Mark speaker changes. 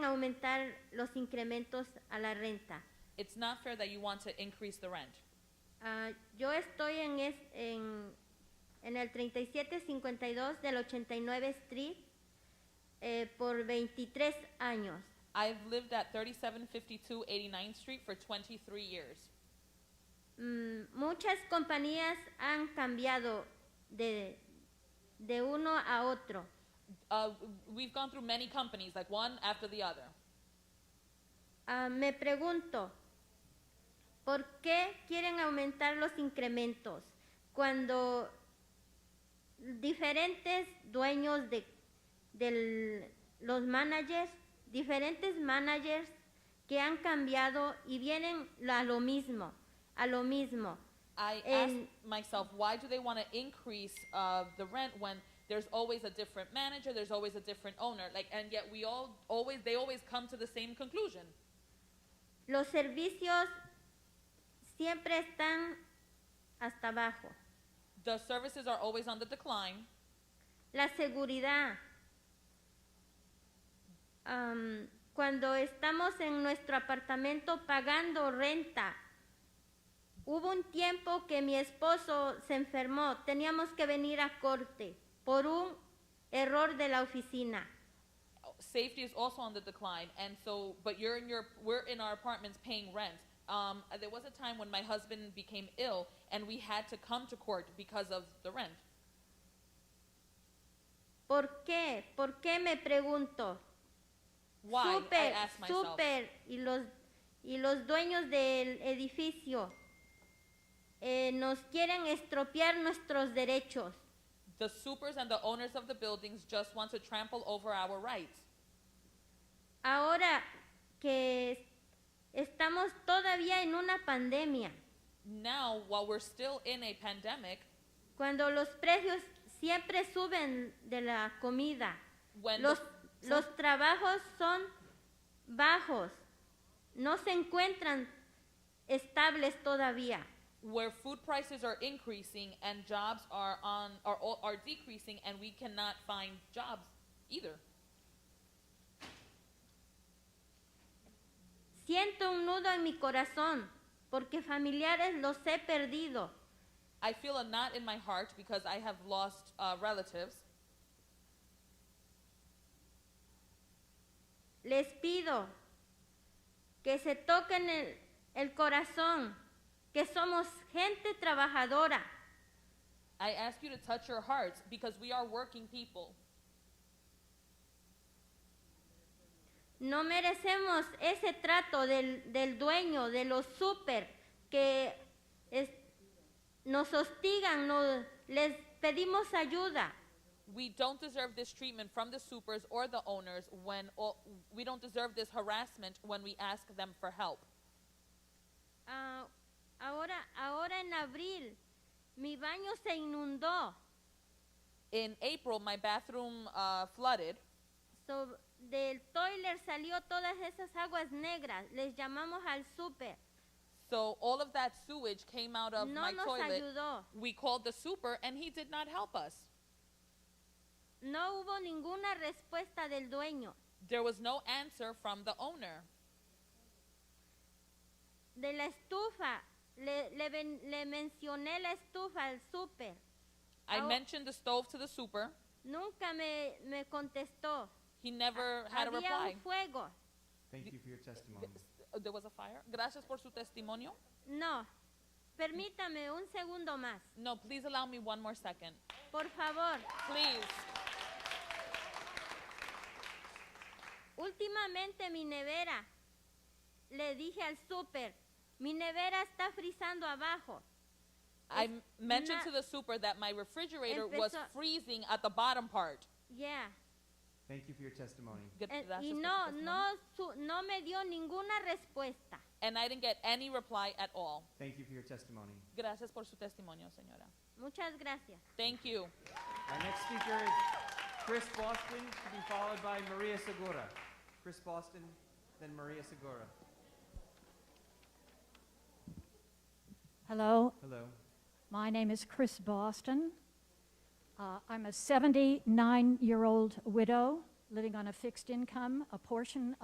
Speaker 1: aumentar los incrementos a la renta.
Speaker 2: It's not fair that you want to increase the rent.
Speaker 1: Ah, yo estoy en, es, en, en el 3752 del 89 Street eh, por 23 años.
Speaker 2: I've lived at 3752 89th Street for 23 years.
Speaker 1: Mm, muchas compañías han cambiado de, de uno a otro.
Speaker 2: Uh, we've gone through many companies, like one after the other.
Speaker 1: Ah, me pregunto, ¿por qué quieren aumentar los incrementos cuando diferentes dueños de del- los managers, diferentes managers que han cambiado y vienen a lo mismo, a lo mismo?
Speaker 2: I
Speaker 1: And-
Speaker 2: asked myself, why do they want to increase uh, the rent when there's always a different manager, there's always a different owner, like, and yet we all always they always come to the same conclusion.
Speaker 1: Los servicios siempre están hasta abajo.
Speaker 2: The services are always on the decline.
Speaker 1: La seguridad. Am, cuando estamos en nuestro apartamento pagando renta, hubo un tiempo que mi esposo se enfermó, teníamos que venir a corte por un error de la oficina.
Speaker 2: Safety is also on the decline, and so, but you're in your we're in our apartments paying rent. Um, there was a time when my husband became ill, and we had to come to court because of the rent.
Speaker 1: ¿Por qué? ¿Por qué me pregunto?
Speaker 2: Why? I
Speaker 1: Súper,
Speaker 2: asked myself.
Speaker 1: súper. Y los, y los dueños del edificio eh, nos quieren estropear nuestros derechos.
Speaker 2: The supers and the owners of the buildings just want to trample over our rights.
Speaker 1: Ahora que es- estamos todavía en una pandemia,
Speaker 2: Now, while we're still in a pandemic,
Speaker 1: cuando los precios siempre suben de la comida,
Speaker 2: when
Speaker 1: los,
Speaker 2: the,
Speaker 1: los trabajos son bajos, no se encuentran estables todavía.
Speaker 2: where food prices are increasing and jobs are on are all- are decreasing, and we cannot find jobs either.
Speaker 1: Siento un nudo en mi corazón porque familiares los he perdido.
Speaker 2: I feel a knot in my heart because I have lost uh, relatives.
Speaker 1: Les pido que se toquen el, el corazón, que somos gente trabajadora,
Speaker 2: I ask you to touch your hearts because we are working people.
Speaker 1: No merecemos ese trato del, del dueño, de los súper, que es- nos hostigan, no- les pedimos ayuda.
Speaker 2: We don't deserve this treatment from the supers or the owners when all, we don't deserve this harassment when we ask them for help.
Speaker 1: Ah, ahora, ahora en abril, mi baño se inundó.
Speaker 2: In April, my bathroom uh, flooded.
Speaker 1: So- del toiler salió todas esas aguas negras. Les llamamos al súper.
Speaker 2: So all of that sewage came out of
Speaker 1: No
Speaker 2: my
Speaker 1: nos
Speaker 2: toilet.
Speaker 1: ayudó.
Speaker 2: We called the super and he did not help us.
Speaker 1: No hubo ninguna respuesta del dueño.
Speaker 2: There was no answer from the owner.
Speaker 1: De la estufa, le, le ven- le mencioné la estufa al súper.
Speaker 2: I
Speaker 1: How-
Speaker 2: mentioned the stove to the super.
Speaker 1: Nunca me, me contestó.
Speaker 2: He never had a
Speaker 1: Había
Speaker 2: reply.
Speaker 1: un fuego.
Speaker 3: Thank you for your testimony.
Speaker 2: Oh, There was a fire. Gracias por su testimonio.
Speaker 1: No. Permítame un segundo más,
Speaker 2: No, please allow me one more second.
Speaker 1: por favor.
Speaker 2: Please.
Speaker 1: Últimamente mi nevera, le dije al súper, mi nevera está frizando abajo.
Speaker 2: I
Speaker 1: Es
Speaker 2: mentioned
Speaker 1: una-
Speaker 2: to the super that my refrigerator was
Speaker 1: Empezó-
Speaker 2: freezing at the bottom part.
Speaker 1: Yeah.
Speaker 3: Thank you for your testimony.
Speaker 2: Good-
Speaker 1: Eh,
Speaker 2: gracias
Speaker 1: y
Speaker 2: por su
Speaker 1: no,
Speaker 2: testimonio.
Speaker 1: no, su- no me dio ninguna respuesta.
Speaker 2: And I didn't get any reply at all.
Speaker 3: Thank you for your testimony.
Speaker 2: Gracias por su testimonio, señora.
Speaker 1: Muchas gracias.
Speaker 2: Thank you.
Speaker 3: Our next speaker is Chris Boston, to be followed by Maria Segura. Chris Boston, then Maria Segura.
Speaker 4: Hello,
Speaker 3: Hello.
Speaker 4: my name is Chris Boston. Uh, I'm a 79 year old widow living on a fixed income, a portion